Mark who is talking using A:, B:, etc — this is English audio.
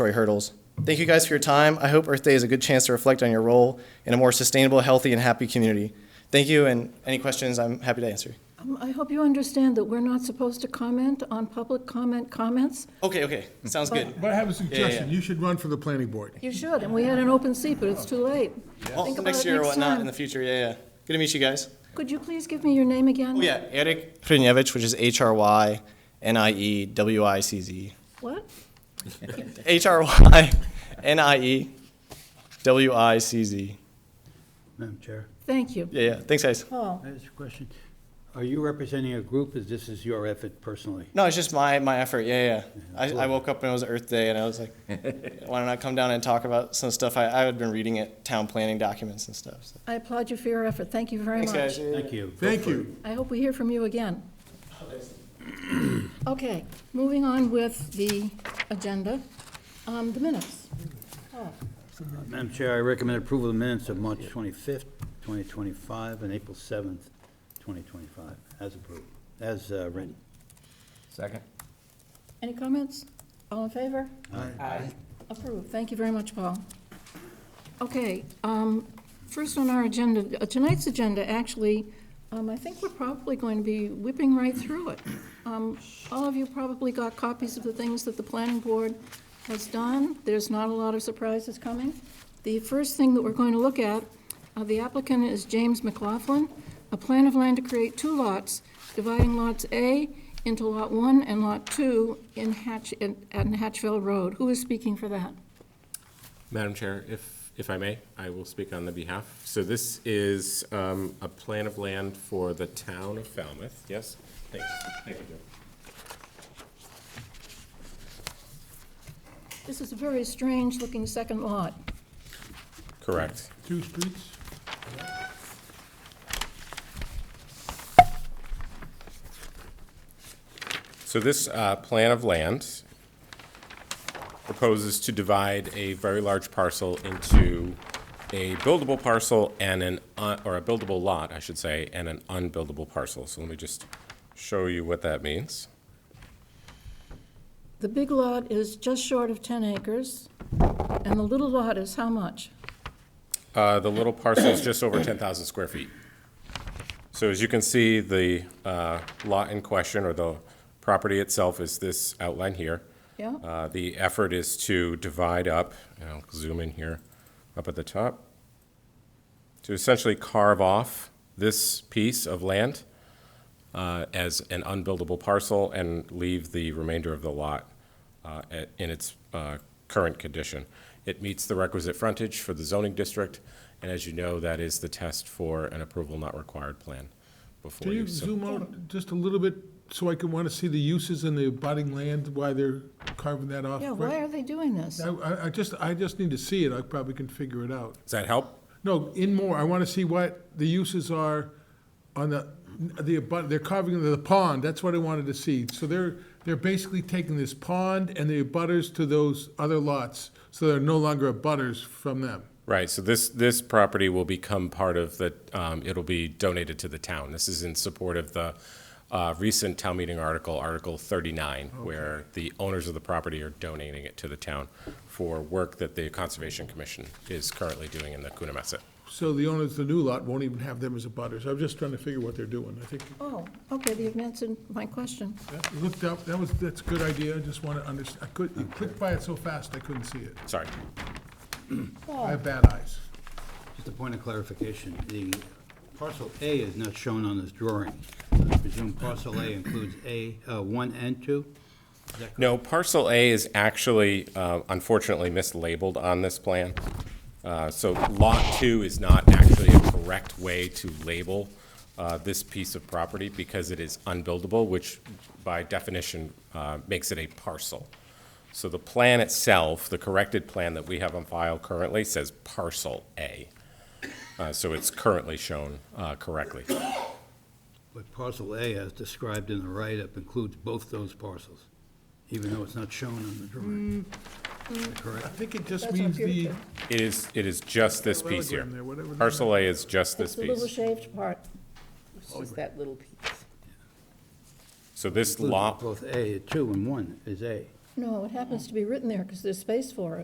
A: regulatory hurdles. Thank you guys for your time. I hope Earth Day is a good chance to reflect on your role in a more sustainable, healthy, and happy community. Thank you, and any questions, I'm happy to answer.
B: Um, I hope you understand that we're not supposed to comment on public comment comments.
A: Okay, okay, sounds good.
C: But I have a suggestion, you should run for the planning board.
B: You should, and we had an open seat, but it's too late.
A: Well,
B: Think about
A: next
B: it
A: year or
B: next
A: whatnot in
B: time.
A: the future, yeah, yeah. Good to meet you guys.
B: Could you please give me your name again?
A: Oh, yeah, Eric Prunevich, which is H R Y N I E W I C Z.
B: What?
A: H R Y N I E W I C Z.
D: Madam Chair,
B: Thank you.
A: Yeah, yeah. Thanks, guys.
B: Paul,
D: I have a question. Are you representing a group, is this is your effort personally?
A: No, it's just my, my effort. Yeah, yeah. I, I woke up and it was Earth Day, and I was like, why don't I come down and talk about some stuff? I, I had been reading it, town planning documents and stuff. So.
B: I applaud you for your effort. Thank you very
A: Thanks,
B: much.
A: guys. Yeah, yeah.
D: Thank you.
C: Thank you.
B: I hope we hear from you again. Okay, moving on with the agenda, um, the minutes.
D: Madam Chair, I recommend approval of the minutes of March 25th, 2025, and April 7th, 2025, as approved, as uh, written.
E: Second.
B: Any comments? All in favor? Approved. Thank you very much, Paul. Okay, um, first on our agenda, uh, tonight's agenda, actually, um, I think we're probably going to be whipping right through it. Um, All of you probably got copies of the things that the planning board has done. There's not a lot of surprises coming. The first thing that we're going to look at, uh, the applicant is James McLaughlin, a plan of land to create two lots, dividing lots A into Lot 1 and Lot 2 in Hatch, in- on Hatchville Road. Who is speaking for that?
F: Madam Chair, if, if I may, I will speak on the behalf. So this is um, a plan of land for the town of Falmouth, yes? Thanks, thank you. Joe.
B: This is a very strange-looking second lot.
F: Correct.
C: Two streets?
F: So this uh, plan of land proposes to divide a very large parcel into a buildable parcel and an, un- or a buildable lot, I should say, and an unbuildable parcel. So let me just show you what that means.
B: The big lot is just short of 10 acres, and the little lot is how much?
F: Uh, The little parcel is just over 10,000 square feet. So as you can see, the uh, lot in question, or the property itself, is this outline here.
B: Yeah?
F: Uh, The effort is to divide up, and I'll zoom in here, up at the top, to essentially carve off this piece of land uh, as an unbuildable parcel and leave the remainder of the lot uh, at- in its uh, current condition. It meets the requisite frontage for the zoning district, and as you know, that is the test for an approval not required plan before
C: Can
F: you.
C: you
F: sub-
C: zoom out just a little bit so I can want to see the uses and the abutting land, why they're carving that off?
B: Yeah, why are they doing this?
C: I- I, I just, I just need to see it, I probably can figure it out.
F: Does that help?
C: No, in more, I want to see what the uses are on the, the abut, they're carving the pond, that's what I wanted to see. So they're, they're basically taking this pond and the abutters to those other lots, so they're no longer abutters from them.
F: Right, so this, this property will become part of the, um, it'll be donated to the town. This is in support of the, uh, recent town meeting article, Article thirty-nine, where the owners of the property are donating it to the town for work that the Conservation Commission is currently doing in the Coonamessett.
C: So the owners of the new lot won't even have them as abutters. I'm just trying to figure what they're doing. I think,
B: Oh, okay, you've answered my question.
C: that looked up, that was, that's a good idea. I just want to understand, I could, you clicked by it so fast, I couldn't see it.
F: Sorry.
C: I have bad eyes.
D: Just a point of clarification, the parcel A is not shown on this drawing. I presume parcel A includes A, uh, 1 and 2?
F: No, parcel A is actually uh, unfortunately mislabeled on this plan. Uh, So lot two is not actually a correct way to label uh, this piece of property because it is unbuildable, which by definition uh, makes it a parcel. So the plan itself, the corrected plan that we have on file currently says parcel A. Uh, So it's currently shown uh, correctly.
D: But parcel A, as described in the write-up, includes both those parcels, even though it's not shown on the drawing. Is that
C: I
D: Correct?
C: think it just
B: That's our
C: means the,
B: future.
F: It is, it is just this piece here.
C: Parallelogram there, whatever the-
F: Parcel A is just
B: It's
F: this
B: the
F: piece. Oh,
B: little shaved part.
G: It's just that little piece.
F: So this
D: Includes
F: lot,
D: Both A, 2 and 1 is A.
B: No, it happens to be written there because there's space for it.